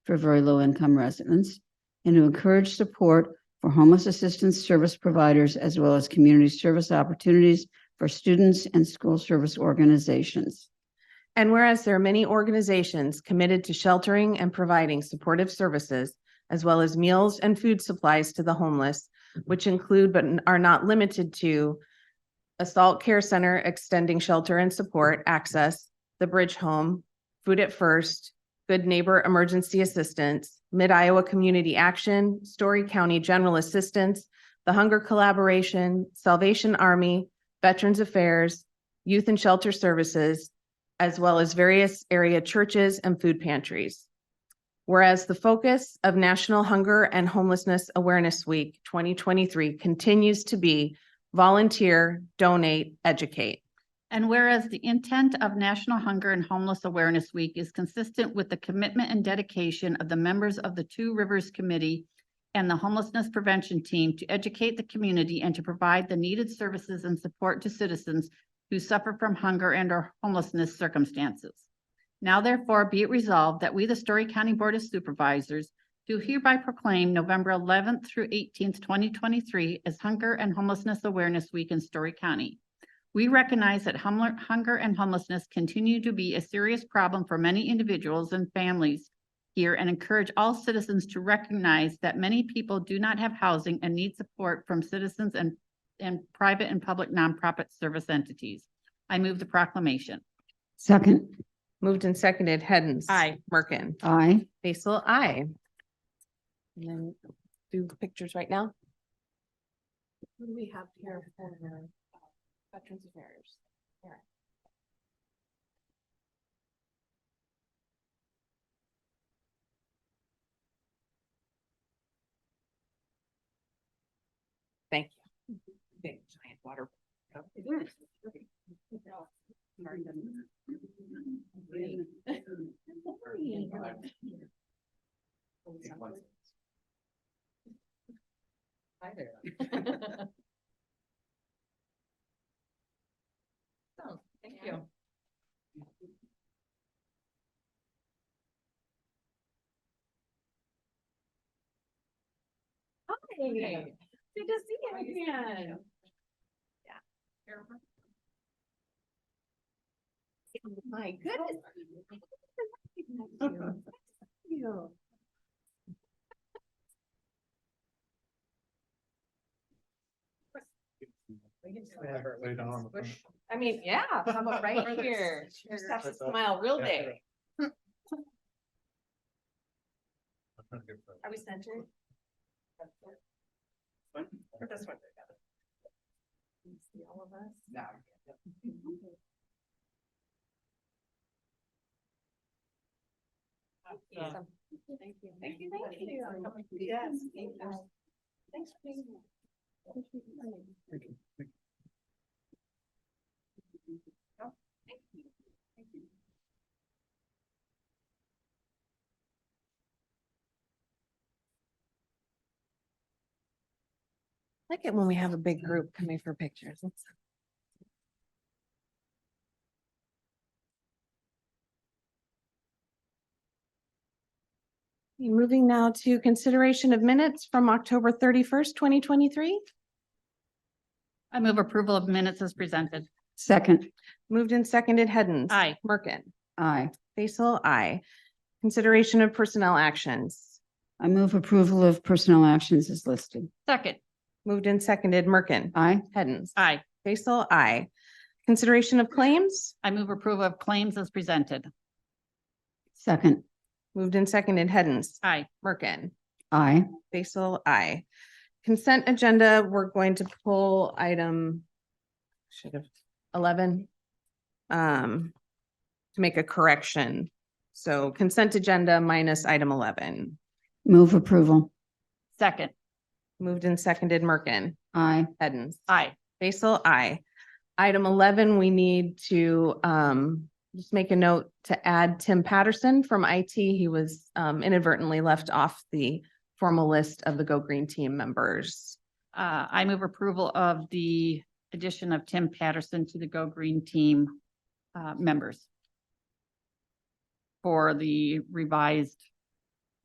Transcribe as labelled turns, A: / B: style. A: for very low income residents and to encourage support for homeless assistance service providers as well as community service opportunities for students and school service organizations.
B: And whereas there are many organizations committed to sheltering and providing supportive services, as well as meals and food supplies to the homeless, which include but are not limited to Assault Care Center extending shelter and support access, the Bridge Home, Food at First, Good Neighbor Emergency Assistance, Mid Iowa Community Action, Story County General Assistance, the Hunger Collaboration, Salvation Army, Veterans Affairs, Youth and Shelter Services, as well as various area churches and food pantries. Whereas the focus of National Hunger and Homelessness Awareness Week 2023 continues to be volunteer, donate, educate.
C: And whereas the intent of National Hunger and Homeless Awareness Week is consistent with the commitment and dedication of the members of the Two Rivers Committee and the Homelessness Prevention Team to educate the community and to provide the needed services and support to citizens who suffer from hunger and or homelessness circumstances. Now therefore be it resolved that we, the Story County Board of Supervisors, do hereby proclaim November eleventh through eighteenth, twenty twenty-three as Hunger and Homelessness Awareness Week in Story County. We recognize that humler- hunger and homelessness continue to be a serious problem for many individuals and families here and encourage all citizens to recognize that many people do not have housing and need support from citizens and, and private and public nonprofit service entities. I move the proclamation.
A: Second,
B: Moved and seconded, Hens.
C: Aye.
B: Merkin.
A: aye.
B: Basil, aye. And then do pictures right now. What do we have here for uh, Veterans Affairs? Thank you. Big giant water.
D: Hi there. So, thank you. Hi. Good to see you again. Yeah. My goodness. Thank You. We can do
E: Yeah,
D: whatever we
E: lay down
D: want.
E: on the
D: Squish.
E: front.
D: I mean, yeah, how about right
E: Whether
D: here?
E: it's
D: Just
E: here.
D: have to
E: That's up.
D: smile real
E: Yeah.
D: big.
E: I'm trying to get that.
D: Are we centered? Or this one? Can you See all of us? No. Awesome. Thank you. Thank you, thank you. Yes. thank you. Thanks for being here.
E: Thank you. Thank you.
D: Thank you. Thank you.
B: Like it when we have a big group coming for pictures. That's- Okay, Moving now to consideration of minutes from October thirty-first, twenty twenty-three.
C: I move approval of minutes as presented.
A: Second,
B: Moved and seconded, Hens.
C: Aye.
B: Merkin.
A: aye.
B: Basil, aye. Consideration of personnel actions.
A: I move approval of personnel actions as listed.
C: Second.
B: Moved and seconded, Merkin.
A: Aye.
B: Hens.
C: Aye.
B: Basil, aye. Consideration of claims.
C: I move approval of claims as presented.
A: Second,
B: Moved and seconded, Hens.
C: Aye.
B: Merkin.
A: aye.
B: Basil, I. Consent agenda, we're going to pull item should have eleven um to make a correction. So consent agenda minus item eleven.
A: Move approval.
C: Second.
B: Moved and seconded Merkin,
A: Aye.
B: Edens,
C: Aye.
B: Basil, I. Item eleven, we need to um just make a note to add Tim Patterson from IT. He was um inadvertently left off the formal list of the Go Green Team members.
C: Uh, I move approval of the addition of Tim Patterson to the Go Green Team, uh, members for the revised